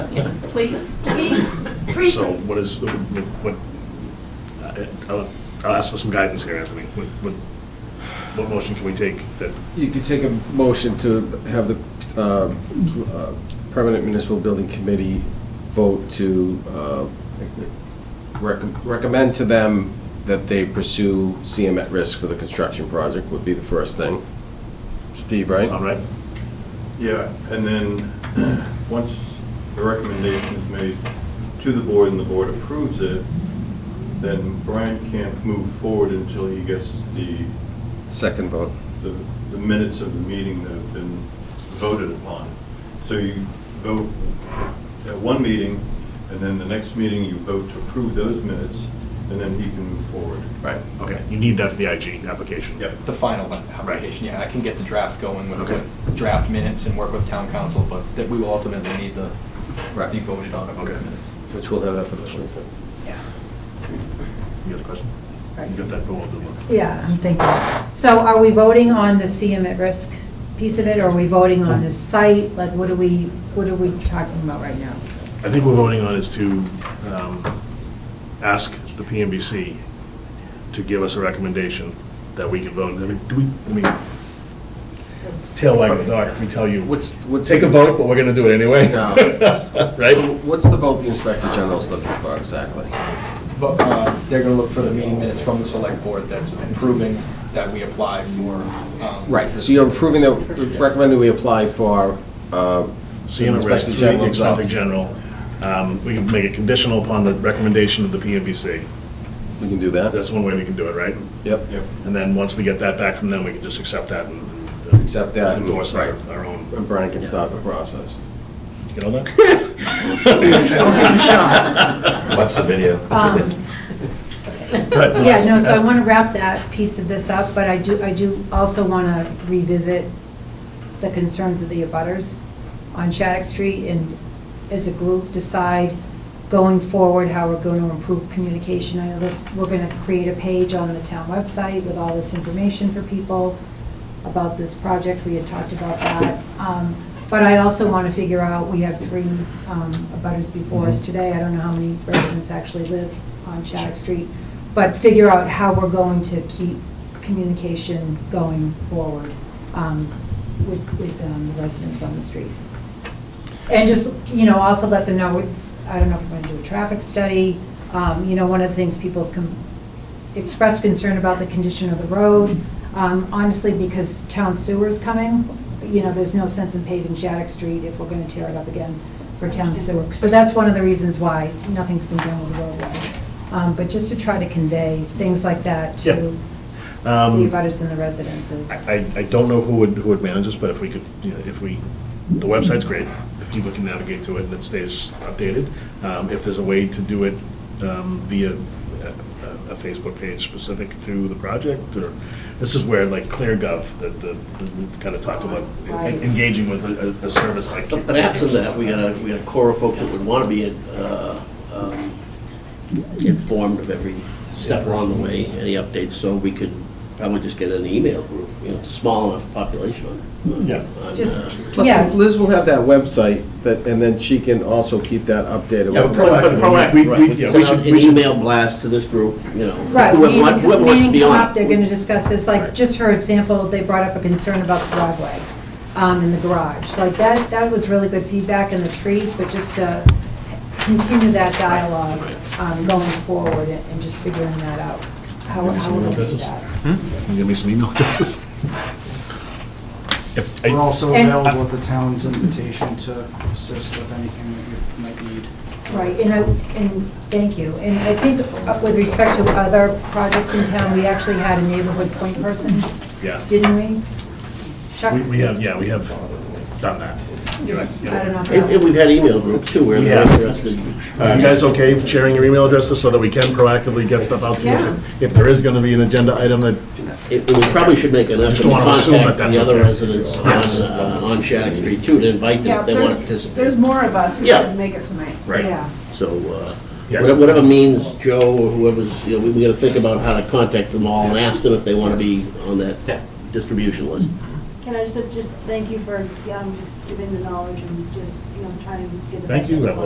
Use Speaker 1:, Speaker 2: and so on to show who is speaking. Speaker 1: Yeah.
Speaker 2: Please.
Speaker 3: Please, please,
Speaker 4: So
Speaker 3: please.
Speaker 4: what is, what, I- I'll, I'll ask for some guidance here, Anthony. What, what, what motion can we take that,
Speaker 5: You could take a motion to have the uh, uh, Permanent Municipal Building Committee vote to uh, recom- recommend to them that they pursue CM at risk for the construction project would be the first thing. Steve, right?
Speaker 4: sound right?
Speaker 6: Yeah, and then, once the recommendation is made to the board and the board approves it, then Brian can't move forward until he gets the,
Speaker 5: Second vote.
Speaker 6: the the minutes of the meeting that have been voted upon. So you vote at one meeting, and then the next meeting, you vote to approve those minutes, and then he can move forward.
Speaker 5: Right.
Speaker 4: Okay, you need that for the IG application.
Speaker 6: Yep.
Speaker 1: The final application, yeah, I can get the draft going with,
Speaker 4: Okay.
Speaker 1: with draft minutes and work with town council, but that we will ultimately need the,
Speaker 5: Right.
Speaker 1: be voted on
Speaker 4: Okay.
Speaker 1: minutes.
Speaker 5: Which we'll have that for the 25th.
Speaker 4: You got a question? You got that, go on, good luck.
Speaker 7: Yeah, I'm thinking. So are we voting on the CM at risk piece of it, or are we voting on the site? Like, what are we, what are we talking about right now?
Speaker 4: I think we're voting on is to um, ask the PMBC to give us a recommendation that we can vote. I mean, do we, I mean, it's tail wagging the dog if we tell you,
Speaker 5: What's, what's?
Speaker 4: take a vote, but we're going to do it anyway.
Speaker 5: No. So
Speaker 4: Right?
Speaker 5: What's the vote the Inspector General's looking for exactly?
Speaker 1: But, uh, They're going to look for the meeting minutes from the select board that's approving that we apply for. um,
Speaker 5: Right, so you're approving that, recommending we apply for uh,
Speaker 4: CM at risk,
Speaker 5: Inspector
Speaker 4: three, the
Speaker 5: General's
Speaker 4: Inspector
Speaker 5: office.
Speaker 4: General. Um, We can make it conditional upon the recommendation of the PMBC.
Speaker 5: We can do that?
Speaker 4: That's one way we can do it, right?
Speaker 5: Yep.
Speaker 6: Yep.
Speaker 4: And then, once we get that back from them, we can just accept that and.
Speaker 5: Accept that and-
Speaker 4: Endorse our
Speaker 5: right.
Speaker 4: our own.
Speaker 5: And Brian can start the process.
Speaker 4: Get all that?
Speaker 8: Watch the video.
Speaker 7: Um,
Speaker 4: Right, well,
Speaker 7: Yeah, no, so I
Speaker 4: that's-
Speaker 7: want to wrap that piece of this up, but I do, I do also want to revisit the concerns of the abutters on Shattuck Street and as a group decide going forward how we're going to improve communication. I know this, we're going to create a page on the town website with all this information for people about this project. We had talked about that. Um, But I also want to figure out, we have three um, abutters before us today. I don't know how many residents actually live on Shattuck Street, but figure out how we're going to keep communication going forward um, with with um, the residents on the street. And just, you know, also let them know, I don't know if we're going to do a traffic study. Um, You know, one of the things people com- expressed concern about the condition of the road, um, honestly, because town sewer is coming. You know, there's no sense in paving Shattuck Street if we're going to tear it up again for town sewer. So that's one of the reasons why nothing's been done with the roadway. Um, But just to try to convey things like that
Speaker 4: Yeah.
Speaker 7: to the
Speaker 4: Um,
Speaker 7: abutters and the residences.
Speaker 4: I, I- I don't know who would, who would manage this, but if we could, you know, if we, the website's great, if people can navigate to it and it stays updated. Um, If there's a way to do it um, via a- a Facebook page specific to the project, or, this is where like ClearGov, that the, that we've kind of talked about, en-
Speaker 7: Right.
Speaker 4: engaging with a, a- a service like.
Speaker 8: But but after that, we got a, we got a core of folks that would want to be uh, um, informed of every step along the way, any updates, so we could probably just get an email group. You know, it's a small enough population on- on.
Speaker 4: Yeah.
Speaker 8: on,
Speaker 7: Just,
Speaker 8: uh,
Speaker 7: yeah.
Speaker 5: Plus, Liz will have that website, that, and then she can also keep that updated.
Speaker 8: Yeah, but
Speaker 5: with
Speaker 8: pro- but
Speaker 5: the-
Speaker 4: proactive,
Speaker 8: proactive,
Speaker 4: we-
Speaker 8: right,
Speaker 4: we-
Speaker 8: we
Speaker 4: yeah,
Speaker 8: can
Speaker 4: we
Speaker 8: send
Speaker 4: should-
Speaker 8: out an
Speaker 4: we should-
Speaker 8: email blast to this group, you know.
Speaker 7: Right,
Speaker 8: whoever wa-
Speaker 7: meeting,
Speaker 8: whoever wants to
Speaker 7: meeting
Speaker 8: be
Speaker 7: come
Speaker 8: on
Speaker 7: up,
Speaker 8: it.
Speaker 7: they're gonna discuss this, like,
Speaker 4: Right.
Speaker 7: just for example, they brought up a concern about the driveway, um, in the garage. Like, that, that was really good feedback in the trees, but just to continue that dialogue, um, going forward and and just figuring that out. How,
Speaker 4: Maybe
Speaker 7: how
Speaker 4: some
Speaker 7: we're
Speaker 4: real
Speaker 7: gonna do
Speaker 4: business. Hmm?
Speaker 7: that.
Speaker 4: Can you Give me some email addresses. If,
Speaker 9: We're
Speaker 4: I-
Speaker 9: also
Speaker 7: And-
Speaker 9: available at the town's invitation to assist with anything that you might need.
Speaker 7: Right, and I, and, thank you. And I think uh, with respect to other projects in town, we actually had a neighborhood point person,
Speaker 4: yeah,
Speaker 7: didn't we? Chuck?
Speaker 4: we, we have, yeah, we have done that. You're right.
Speaker 7: I
Speaker 4: yeah.
Speaker 7: don't know. if
Speaker 8: And
Speaker 7: that-
Speaker 8: and we've had email groups too, where they're
Speaker 4: Yeah.
Speaker 8: interested.
Speaker 4: Are Uh, you guys okay sharing your email addresses so that we can proactively get stuff out to
Speaker 7: Yeah.
Speaker 4: you? If there is gonna be an agenda item that,
Speaker 8: It- We probably should make an effort
Speaker 4: Just
Speaker 8: to
Speaker 4: don't wanna assume that
Speaker 8: contact
Speaker 4: that's
Speaker 8: the other
Speaker 4: okay.
Speaker 8: residents on, uh, on Shattuck Street too, to invite them
Speaker 2: Yeah,
Speaker 8: if they want to
Speaker 2: there's, there's
Speaker 8: participate.
Speaker 2: more of us who
Speaker 8: Yeah.
Speaker 2: didn't make it tonight.
Speaker 4: right?
Speaker 7: Yeah.
Speaker 8: So, uh,
Speaker 4: Yes.
Speaker 8: whatever- whatever means Joe or whoever's, you know, we we gotta think about how to contact them all and ask them if they wanna be on that distribution list.
Speaker 10: Can I just, just thank you for, yeah, I'm just giving the knowledge and just, you know, trying to get the
Speaker 4: Thank
Speaker 10: best
Speaker 4: you,
Speaker 10: of
Speaker 4: Evelyn.